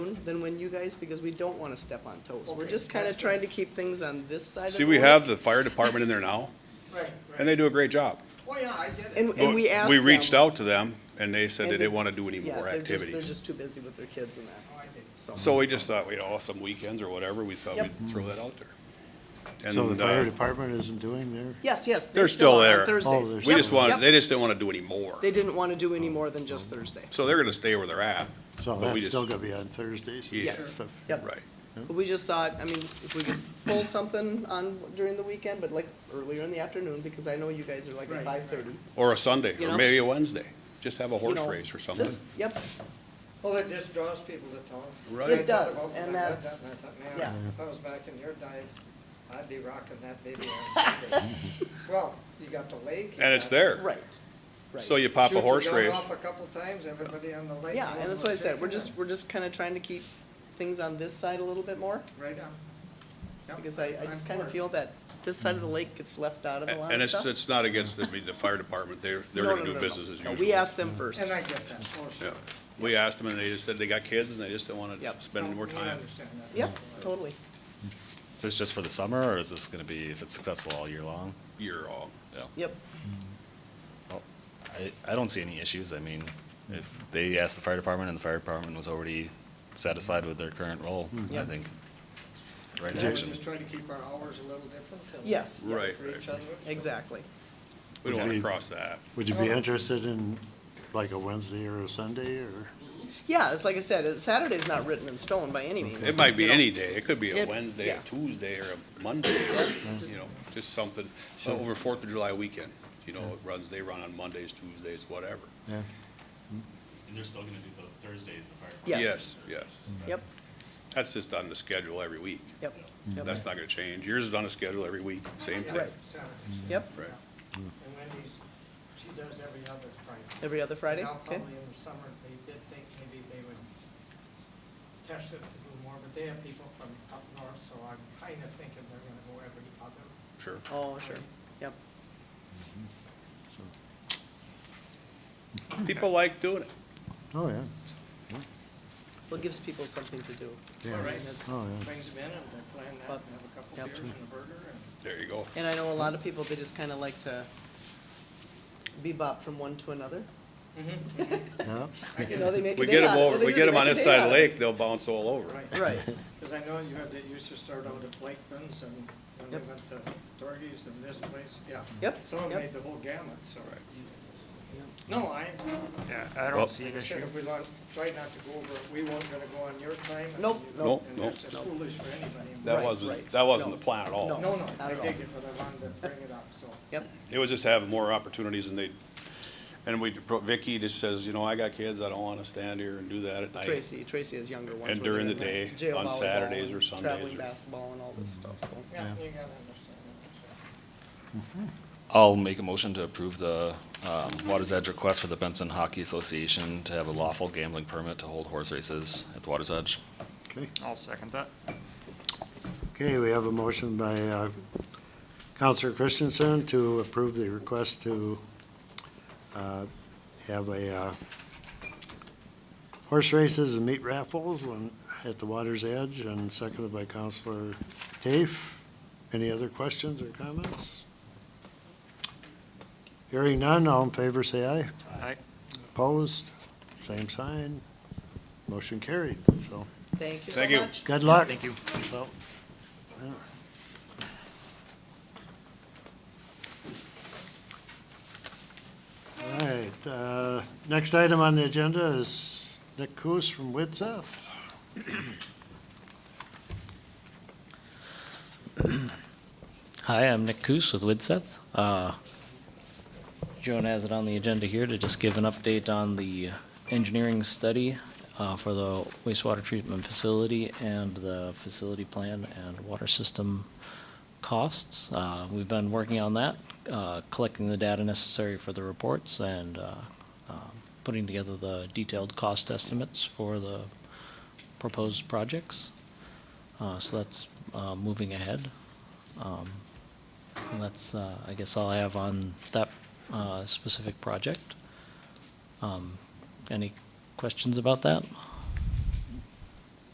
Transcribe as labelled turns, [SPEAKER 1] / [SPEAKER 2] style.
[SPEAKER 1] than when you guys, because we don't wanna step on toes. We're just kinda trying to keep things on this side of the.
[SPEAKER 2] See, we
[SPEAKER 1] road.
[SPEAKER 2] have the fire department in there now,
[SPEAKER 3] Right,
[SPEAKER 2] and they do a great job.
[SPEAKER 3] Well, yeah, I get it.
[SPEAKER 1] And, and we
[SPEAKER 2] But
[SPEAKER 1] asked
[SPEAKER 2] We reached
[SPEAKER 1] them-
[SPEAKER 2] out to them, and they said they
[SPEAKER 1] And
[SPEAKER 2] didn't
[SPEAKER 1] they-
[SPEAKER 2] want to do any
[SPEAKER 1] Yeah,
[SPEAKER 2] more
[SPEAKER 1] they're just- They're
[SPEAKER 2] activities.
[SPEAKER 1] just too busy with their kids and that,
[SPEAKER 3] Oh, I did.
[SPEAKER 1] so.
[SPEAKER 2] So we just thought, you know, some weekends or whatever, we thought
[SPEAKER 1] Yep.
[SPEAKER 2] we'd throw that out there.
[SPEAKER 4] So the
[SPEAKER 2] And
[SPEAKER 4] fire
[SPEAKER 2] uh,
[SPEAKER 4] department isn't doing their,
[SPEAKER 1] Yes, yes.
[SPEAKER 2] They're still
[SPEAKER 1] on
[SPEAKER 2] there.
[SPEAKER 4] Oh,
[SPEAKER 1] Thursdays.
[SPEAKER 4] they're
[SPEAKER 2] we
[SPEAKER 1] Yep,
[SPEAKER 2] just wanted,
[SPEAKER 1] yep.
[SPEAKER 2] they just didn't want to do any more.
[SPEAKER 1] They didn't wanna do any more than just Thursday.
[SPEAKER 2] So they're going to stay where they're at. But
[SPEAKER 4] so
[SPEAKER 2] we
[SPEAKER 4] that's
[SPEAKER 2] just-
[SPEAKER 4] still gonna be on Thursdays? and
[SPEAKER 2] Yeah.
[SPEAKER 1] Yes.
[SPEAKER 4] stuff.
[SPEAKER 1] Yep.
[SPEAKER 2] Right.
[SPEAKER 1] But we just thought, I mean, if we could pull something on during the weekend, but like earlier in the afternoon, because I know you guys are like at
[SPEAKER 3] Right,
[SPEAKER 1] five thirty.
[SPEAKER 2] Or a Sunday,
[SPEAKER 1] You
[SPEAKER 2] or
[SPEAKER 1] know?
[SPEAKER 2] maybe a Wednesday. Just have a horse race or something.
[SPEAKER 1] Yep,
[SPEAKER 3] Well, it just draws people to town.
[SPEAKER 2] Right.
[SPEAKER 3] I
[SPEAKER 2] It
[SPEAKER 3] thought
[SPEAKER 1] does,
[SPEAKER 3] about
[SPEAKER 1] and
[SPEAKER 3] that, I
[SPEAKER 1] that's-
[SPEAKER 3] thought, man,
[SPEAKER 1] yeah.
[SPEAKER 3] If I was back in your day, I'd be rocking that baby. on Sunday. Well, you got the lake. you
[SPEAKER 2] And it's
[SPEAKER 3] got-
[SPEAKER 2] there.
[SPEAKER 1] right, right.
[SPEAKER 2] So you pop
[SPEAKER 3] Shoot the
[SPEAKER 2] a horse
[SPEAKER 3] gun
[SPEAKER 2] race.
[SPEAKER 3] Off a couple times, everybody on the lake.
[SPEAKER 1] Yeah,
[SPEAKER 3] knows
[SPEAKER 1] and that's
[SPEAKER 3] what
[SPEAKER 1] what I said,
[SPEAKER 3] they're
[SPEAKER 1] we're
[SPEAKER 3] doing.
[SPEAKER 1] just, we're just kinda trying to keep things on this side a little bit more,
[SPEAKER 3] Right on. Yep,
[SPEAKER 1] because I, I
[SPEAKER 3] I'm
[SPEAKER 1] just kinda
[SPEAKER 3] for it.
[SPEAKER 1] feel that this side of the lake gets left out of a lot
[SPEAKER 2] And
[SPEAKER 1] of
[SPEAKER 2] it's,
[SPEAKER 1] stuff.
[SPEAKER 2] it's not against the, the fire department. They're, they're
[SPEAKER 1] No,
[SPEAKER 2] going
[SPEAKER 1] no,
[SPEAKER 2] to
[SPEAKER 1] no,
[SPEAKER 2] do
[SPEAKER 1] no.
[SPEAKER 2] business as
[SPEAKER 1] No,
[SPEAKER 2] usual.
[SPEAKER 1] We asked them first,
[SPEAKER 3] And I get that, for sure.
[SPEAKER 2] Yeah. We asked them, and they just said they got kids, and they just didn't want
[SPEAKER 1] Yep.
[SPEAKER 2] to spend any more
[SPEAKER 3] I
[SPEAKER 2] time.
[SPEAKER 3] understand that.
[SPEAKER 1] yep, totally.
[SPEAKER 5] So it's just for the summer, or is this gonna be, if it's successful all year long?
[SPEAKER 2] You're all,
[SPEAKER 5] I, I don't see any issues, I mean, if they asked the fire department and the fire department was already satisfied with their current role, I
[SPEAKER 1] Yep.
[SPEAKER 5] think. Right
[SPEAKER 3] Yeah, we
[SPEAKER 5] action.
[SPEAKER 3] just try to keep our hours a little different. and-
[SPEAKER 1] Yes, yes,
[SPEAKER 2] Right.
[SPEAKER 3] For each other.
[SPEAKER 1] exactly.
[SPEAKER 2] we don't want to
[SPEAKER 4] Okay.
[SPEAKER 2] cross that.
[SPEAKER 4] Would you be
[SPEAKER 3] Oh.
[SPEAKER 4] interested in like a Wednesday or a Sunday or?
[SPEAKER 1] Yeah, it's like I said, it- Saturday's not written in stone by any means.
[SPEAKER 2] It might be
[SPEAKER 1] you know.
[SPEAKER 2] any day. It could be a
[SPEAKER 1] It-
[SPEAKER 2] Wednesday,
[SPEAKER 1] yeah.
[SPEAKER 2] a Tuesday, or a Monday, or, you know, just something. So Over Fourth of July weekend, you know, it runs, they run on Mondays, Tuesdays, whatever.
[SPEAKER 5] And they're still gonna do both Thursdays, the fire.
[SPEAKER 1] Yes,
[SPEAKER 2] Yes.
[SPEAKER 1] Yep.
[SPEAKER 2] That's just on the schedule every week.
[SPEAKER 1] yep, yep,
[SPEAKER 2] Mm, That's not gonna change. Yours is on the schedule every week, same
[SPEAKER 3] Yeah,
[SPEAKER 2] thing.
[SPEAKER 1] Right.
[SPEAKER 3] Saturday.
[SPEAKER 1] yep,
[SPEAKER 2] Right.
[SPEAKER 3] And Wendy's, she does every other Friday.
[SPEAKER 1] every other Friday,
[SPEAKER 3] Now,
[SPEAKER 1] okay,
[SPEAKER 3] probably in the summer, they did think maybe they would test it to do more, but they have people from up north, so I'm kinda thinking they're gonna go every other.
[SPEAKER 2] Sure.
[SPEAKER 1] oh, sure, yep.
[SPEAKER 2] People like doing it.
[SPEAKER 4] Oh, yeah,
[SPEAKER 1] Well, it gives people something to do.
[SPEAKER 4] Yeah.
[SPEAKER 1] I mean,
[SPEAKER 3] Right.
[SPEAKER 1] it's-
[SPEAKER 4] oh, yeah.
[SPEAKER 3] Brings them in and they plan that and have a couple
[SPEAKER 1] Yep.
[SPEAKER 3] beers and a burger and.
[SPEAKER 2] There you go.
[SPEAKER 1] And I know a lot of people, they just kind of like to bebop from one to another.
[SPEAKER 4] Yeah,
[SPEAKER 1] You know, they make a
[SPEAKER 2] We
[SPEAKER 1] day
[SPEAKER 2] get them
[SPEAKER 1] out of it.
[SPEAKER 2] over,
[SPEAKER 1] They
[SPEAKER 2] we
[SPEAKER 1] do, they
[SPEAKER 2] get them on
[SPEAKER 1] make a
[SPEAKER 2] this
[SPEAKER 1] day
[SPEAKER 2] side of
[SPEAKER 1] out
[SPEAKER 2] the lake, they'll bounce all over.
[SPEAKER 3] Right.
[SPEAKER 1] Right,
[SPEAKER 3] Cause I know you had, they used to start out at Blakeman's and then they
[SPEAKER 1] Yep.
[SPEAKER 3] went to Dorgies and this place, yeah.
[SPEAKER 1] Yep,
[SPEAKER 3] Someone
[SPEAKER 1] yep.
[SPEAKER 3] made the whole gamut, so. No, I,
[SPEAKER 6] Yeah, I
[SPEAKER 2] Well-
[SPEAKER 6] don't see
[SPEAKER 3] like
[SPEAKER 6] an
[SPEAKER 3] I said,
[SPEAKER 6] issue.
[SPEAKER 3] if we don't, try not to go over, we weren't gonna go on your time. and
[SPEAKER 1] Nope.
[SPEAKER 3] you-
[SPEAKER 2] Nope,
[SPEAKER 3] And
[SPEAKER 2] nope,
[SPEAKER 3] that's just
[SPEAKER 1] nope.
[SPEAKER 3] foolish for anybody.
[SPEAKER 2] That
[SPEAKER 1] Right,
[SPEAKER 2] wasn't,
[SPEAKER 1] right.
[SPEAKER 2] that wasn't
[SPEAKER 1] No.
[SPEAKER 2] the plan at all.
[SPEAKER 1] No.
[SPEAKER 3] No, no,
[SPEAKER 1] Not
[SPEAKER 3] I
[SPEAKER 1] at all.
[SPEAKER 3] dig it, but I wanted to bring it up, so.
[SPEAKER 1] yep,
[SPEAKER 2] It was just having more opportunities and they, and we, Vicky just says, you know, I got kids, I don't wanna stand here and do that at night.
[SPEAKER 1] Tracy, Tracy has younger ones.
[SPEAKER 2] And
[SPEAKER 1] where
[SPEAKER 2] during
[SPEAKER 1] they're
[SPEAKER 2] the
[SPEAKER 1] in
[SPEAKER 2] day,
[SPEAKER 1] jail
[SPEAKER 2] on
[SPEAKER 1] volleyball
[SPEAKER 2] Saturdays
[SPEAKER 1] and
[SPEAKER 2] or Sundays
[SPEAKER 1] Traveling
[SPEAKER 2] or-
[SPEAKER 1] basketball and all this stuff, so.
[SPEAKER 3] Yeah,
[SPEAKER 4] Yeah.
[SPEAKER 3] you gotta understand that.
[SPEAKER 5] I'll make a motion to approve the, um, Water's Edge request for the Benson Hockey Association to have a lawful gambling permit to hold horse races at the Water's Edge.
[SPEAKER 4] okay.
[SPEAKER 6] I'll second that.
[SPEAKER 4] Okay, we have a motion by uh, Counselor Christensen to approve the request to uh, have a uh, horse races and meat raffles on- at the water's edge, and seconded by Counselor Tafe. Any other questions or comments? Hearing none, all in favor, say aye.
[SPEAKER 6] Aye.
[SPEAKER 4] Opposed, same sign. Motion carried, so,
[SPEAKER 1] Thank you so
[SPEAKER 2] Thank you.
[SPEAKER 1] much.
[SPEAKER 4] good luck.
[SPEAKER 6] Thank you.
[SPEAKER 4] So, yeah. All right, uh, next item on the agenda is Nick Coos from Widseth.
[SPEAKER 7] Hi, I'm Nick Coos with Widseth. Uh, Joan has it on the agenda here to just give an update on the engineering study uh, for the wastewater treatment facility and the facility plan and water system costs. Uh, We've been working on that, uh, collecting the data necessary for the reports and uh, um, putting together the detailed cost estimates for the proposed projects. Uh, So that's uh, moving ahead. Um, And that's, uh, I guess, all I have on that uh, specific project. Um, Any questions about that?